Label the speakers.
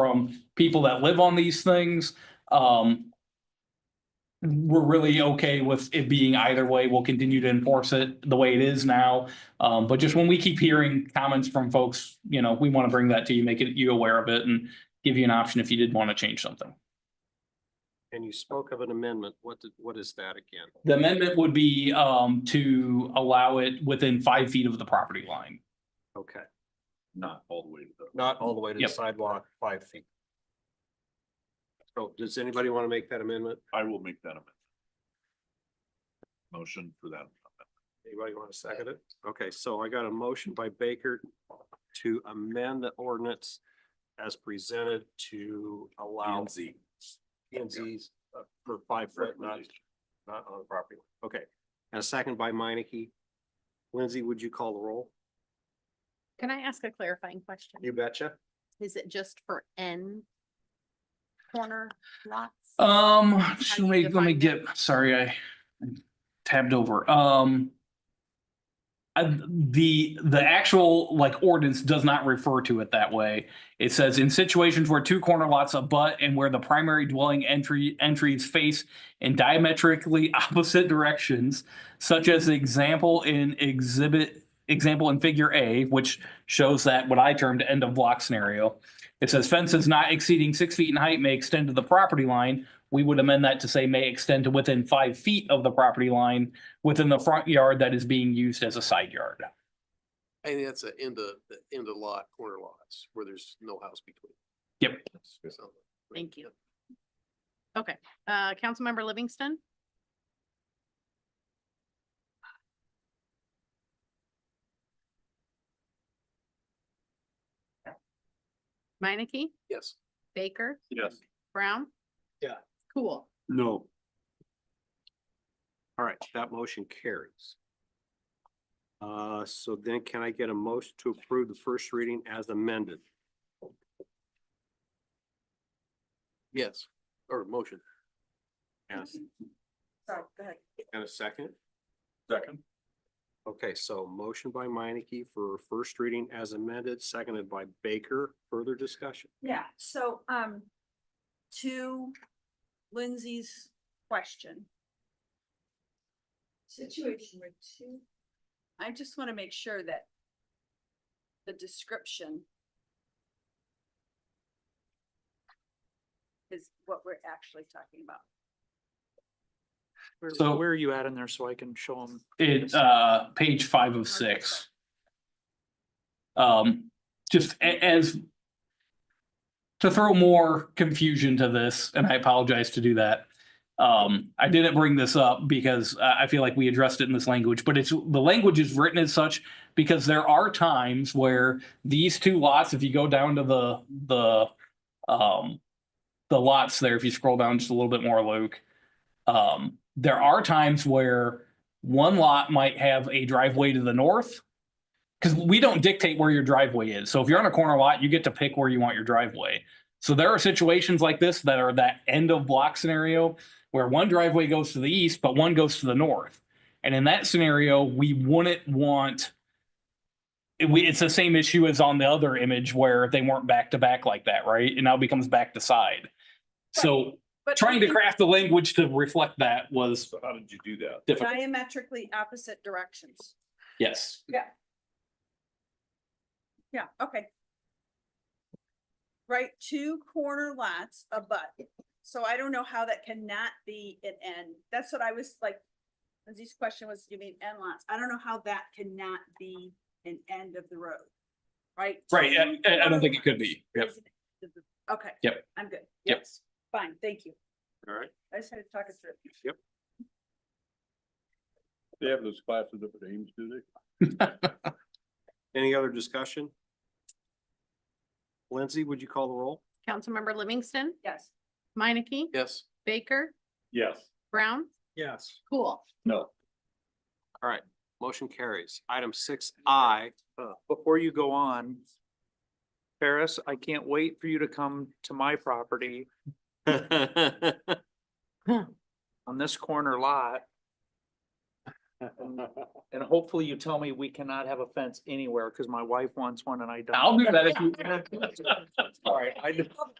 Speaker 1: from people that live on these things. Um. We're really okay with it being either way. We'll continue to enforce it the way it is now. Um, but just when we keep hearing comments from folks, you know, we want to bring that to you, make it you aware of it and give you an option if you did want to change something.
Speaker 2: And you spoke of an amendment. What did, what is that again?
Speaker 1: The amendment would be um to allow it within five feet of the property line.
Speaker 2: Okay,
Speaker 3: Not all the way to the.
Speaker 2: not all the way to the
Speaker 1: Yep.
Speaker 2: sidewalk, five feet. So does anybody want to make that amendment?
Speaker 3: I will make that amendment. Motion for that.
Speaker 2: Anybody want to second it? Okay, so I got a motion by Baker to amend the ordinance as presented to allow
Speaker 3: P&Z.
Speaker 2: PNZs uh, for five foot, not, not on the property. line. Okay, and a second by Minneke. Lindsay, would you call the roll?
Speaker 4: Can I ask a clarifying question?
Speaker 2: You betcha.
Speaker 4: Is it just for N corner lots?
Speaker 1: Um,
Speaker 4: How do
Speaker 1: let
Speaker 4: you
Speaker 1: me, let me
Speaker 4: define it?
Speaker 1: get, sorry, I tabbed over, um. I- the, the actual like ordinance does not refer to it that way. It says in situations where two corner lots abut and where the primary dwelling entry, entries face in diametrically opposite directions. Such as the example in exhibit, example in figure A, which shows that what I termed end of block scenario. It says fences not exceeding six feet in height may extend to the property line we would amend that to say may extend to within five feet of the property line within the front yard that is being used as a side yard.
Speaker 5: I think that's the end of, the end of lot, corner lots, where there's no house between.
Speaker 1: Yep.
Speaker 5: So-
Speaker 4: Thank you. Okay, uh, Councilmember Livingston, Minneke,
Speaker 5: Yes.
Speaker 4: Baker,
Speaker 3: Yes.
Speaker 4: Brown?
Speaker 5: Yeah.
Speaker 4: Cool.
Speaker 2: No. All right, that motion carries. Uh, so then can I get a motion to approve the first reading as amended?
Speaker 5: Yes, or motion.
Speaker 2: Yes.
Speaker 6: Sorry, go ahead.
Speaker 2: And a second?
Speaker 3: Second.
Speaker 2: Okay, so motion by Minneke for first reading as amended, seconded by Baker. Further discussion?
Speaker 6: Yeah, so, um, to Lindsay's question. Situation where two, I just want to make sure that the description is what we're actually talking about.
Speaker 1: So-
Speaker 7: Where are you at in there so I can show them?
Speaker 1: It, uh, page five of six. Um, just a- as to throw more confusion to this, and I apologize to do that. Um, I didn't bring this up because I, I feel like we addressed it in this language, but it's, the language is written as such because there are times where these two lots, if you go down to the, the, um, the lots there, if you scroll down just a little bit more, Luke, um, there are times where one lot might have a driveway to the north because we don't dictate where your driveway is. So if you're on a corner lot, you get to pick where you want your driveway. So there are situations like this that are that end of block scenario where one driveway goes to the east, but one goes to the north. And in that scenario, we wouldn't want it- we, it's the same issue as on the other image where they weren't back to back like that, right? It now becomes back to side. So
Speaker 6: But
Speaker 1: trying to
Speaker 6: looking
Speaker 1: craft the language to reflect that was
Speaker 3: So how did you do that?
Speaker 1: difficult.
Speaker 6: Diametrically opposite directions.
Speaker 1: Yes.
Speaker 6: Yeah, okay. Right, two corner lots abut, so I don't know how that cannot be an N, that's what I was like. Lindsay's question was, you mean N lots, I don't know how that cannot be an end of the road, right?
Speaker 1: Right.
Speaker 6: Two
Speaker 1: I- I- I don't think it could
Speaker 6: corner
Speaker 1: be. Yep.
Speaker 6: lots is an end of the- Okay.
Speaker 1: Yep.
Speaker 6: I'm good.
Speaker 1: Yep.
Speaker 6: Yes, Fine, thank you,
Speaker 2: All right.
Speaker 6: I just had to talk it through.
Speaker 3: They have those classes up at Ames, do they?
Speaker 2: Any other discussion? Lindsay, would you call the roll?
Speaker 4: Councilmember Livingston,
Speaker 6: Yes.
Speaker 4: Minneke,
Speaker 5: Yes.
Speaker 4: Baker,
Speaker 3: Yes.
Speaker 4: Brown?
Speaker 2: Yes.
Speaker 4: Cool.
Speaker 3: No.
Speaker 2: Motion carries. Item six I,
Speaker 7: Uh, Before you go on, Ferris, I can't wait for you to come to my property on this corner lot. And hopefully you tell me we cannot have a fence anywhere, because my wife wants one and I don't.
Speaker 1: I'll do that if you.
Speaker 7: All right, I just.